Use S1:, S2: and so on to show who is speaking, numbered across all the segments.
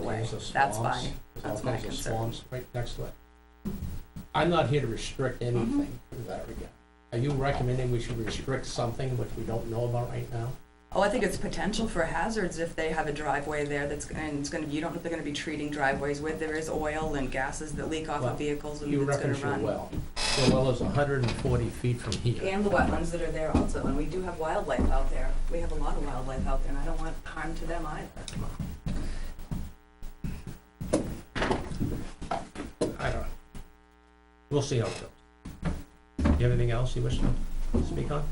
S1: why,
S2: kinds of
S1: that's
S2: swamps,
S1: why.
S2: there's
S1: that's
S2: all
S1: my
S2: kinds of
S1: concern.
S2: swamps right next to it. I'm not here to restrict
S1: Mm-hmm.
S2: anything in that regard. Are you recommending we should restrict something which we don't know about right now?
S1: Oh, I think it's potential for hazards if they have a driveway there that's, and it's gonna, be- you don't know if they're gonna be treating driveways with, there is oil and gases that leak off
S2: Well,
S1: of vehicles and
S2: You
S1: it's gonna
S2: reference your
S1: run.
S2: well. Your well is hundred and forty feet from here.
S1: And the wetlands that are there also, and we do have wildlife out there, we have a lot of wildlife out there, and I don't want harm to them either.
S2: I don't know. We'll see how it goes. You have anything else you wish to speak on?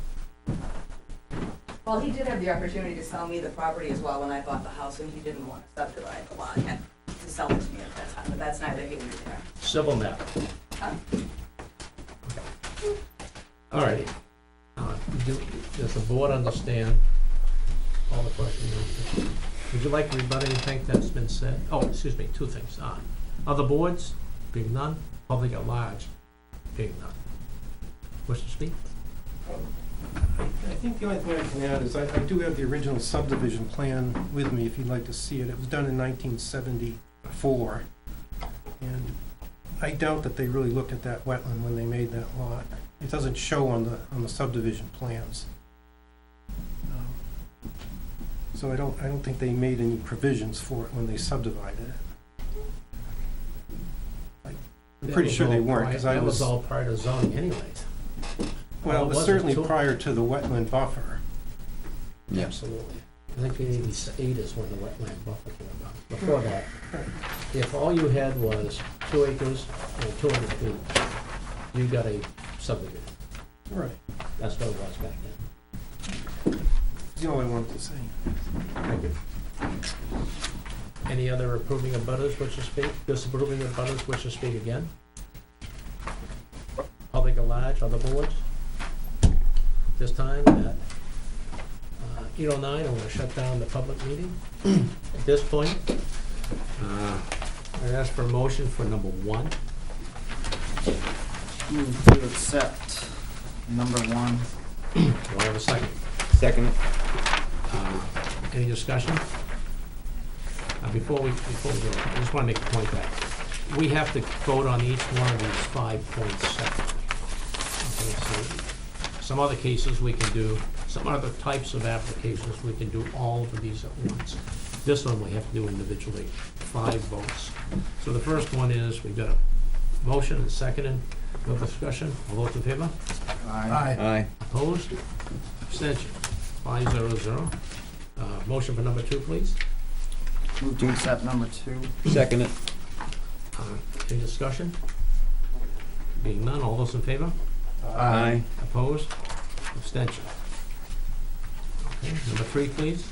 S1: Well, he did have the opportunity to sell me the property as well when I bought the house, and he didn't want to subdivide the lot and to sell it to me at that time, but that's neither here nor there.
S2: Civil matter.
S1: Uh.
S2: All righty. Uh, do- Does the board understand all the questions? Would you like to rebut anything that's been said? Oh, excuse me, two things. Uh, Other boards, being none, public at large, being none. Wish to speak?
S3: I think the only thing I can add is I, I do have the original subdivision plan with me, if you'd like to see it. It was done in nineteen seventy-four. And I doubt that they really looked at that wetland when they made that lot. It doesn't show on the, on the subdivision plans. Um, So I don't, I don't think they made any provisions for it when they subdivided it. I'm
S2: That
S3: pretty
S2: was
S3: sure they
S2: all
S3: weren't,
S2: prior-
S3: 'cause I
S2: That was
S3: was-
S2: all prior to zoning anyways.
S3: Well,
S2: it
S3: it was
S2: wasn't
S3: certainly
S2: till-
S3: prior to the wetland buffer.
S2: Absolutely. I think in eighty-eight is when the wetland buffer came about. Before that, if all you had was two acres and two hundred feet, you got a subdivision.
S3: Right.
S2: That's what it was back then.
S3: That's all I wanted to say.
S2: Any other approving of butters wish to speak? Disapproving of butters wish to speak again? Public at large, other boards? This time at eight oh nine, I'm gonna shut down the public meeting. At this point, uh, I ask for a motion for number one.
S4: Move to accept number one.
S2: Do I have a second?
S4: Second.
S2: Uh, Any discussion? Uh, Before we, before we go, I just want to make a point that we have to vote on each one of these five points separately. Okay, so Some other cases we can do, some other types of applications, we can do all of these at once. This one we have to do individually, five votes. So the first one is, we've got a motion and second and no discussion, all those in favor?
S4: Aye.
S5: Aye.
S2: Opposed? Abstention? Five zero zero. Uh, Motion for number two, please.
S4: Move to accept number two.
S5: Second it.
S2: Uh, Any discussion? Being none, all those in favor?
S5: Aye.
S2: Opposed? Abstention? Okay, Number three, please.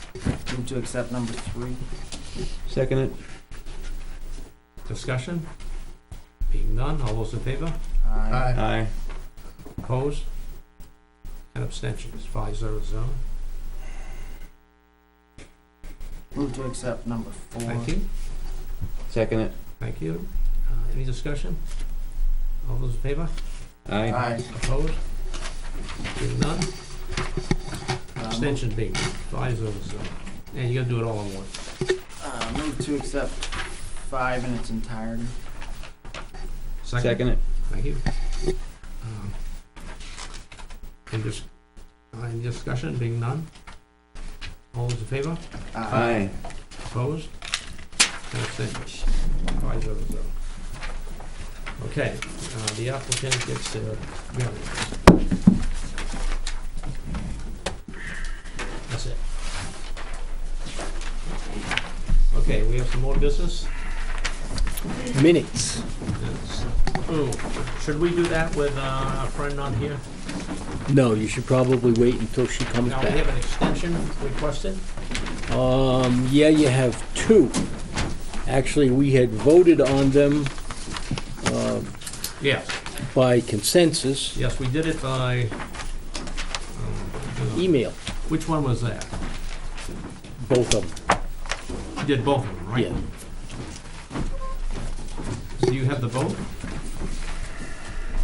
S4: Move to accept number three.
S5: Second it.
S2: Discussion? Being none, all those in favor?
S4: Aye.
S5: Aye.
S2: Opposed? And abstentions? Five zero zero.
S4: Move to accept number four.
S2: Thank you.
S5: Second it.
S2: Thank you. Uh, Any discussion? All those in favor?
S5: Aye.
S4: Aye.
S2: Opposed? Being none,
S4: Uh, move-
S2: Abstention being five zero zero. And you gotta do it all in one.
S4: Uh, move to accept five in its entirety.
S5: Second it.
S2: Thank you. Um, Any dis- uh, any discussion, being none? All those in favor?
S5: Aye.
S2: Opposed? And abstentions? Five zero zero. Okay, uh, the applicant gets their variance. That's it. Okay, we have some more business?
S5: Minutes.
S2: Yes. Ooh, should we do that with uh, our friend on here?
S5: No, you should probably wait until she comes
S2: Now, we
S5: back.
S2: have an extension requested.
S5: Um, yeah, you have two. Actually, we had voted on them
S2: Yes,
S5: by consensus
S2: yes, we did it by, um,
S5: email,
S2: which one was that?
S5: both of them.
S2: You did both of them, right?
S5: Yeah.
S2: Do you have the vote?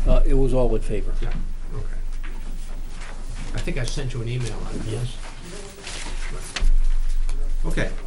S5: Uh, it was all in favor.
S2: Yeah. Okay. I think I sent you an email on it.
S5: Yes.
S2: Okay,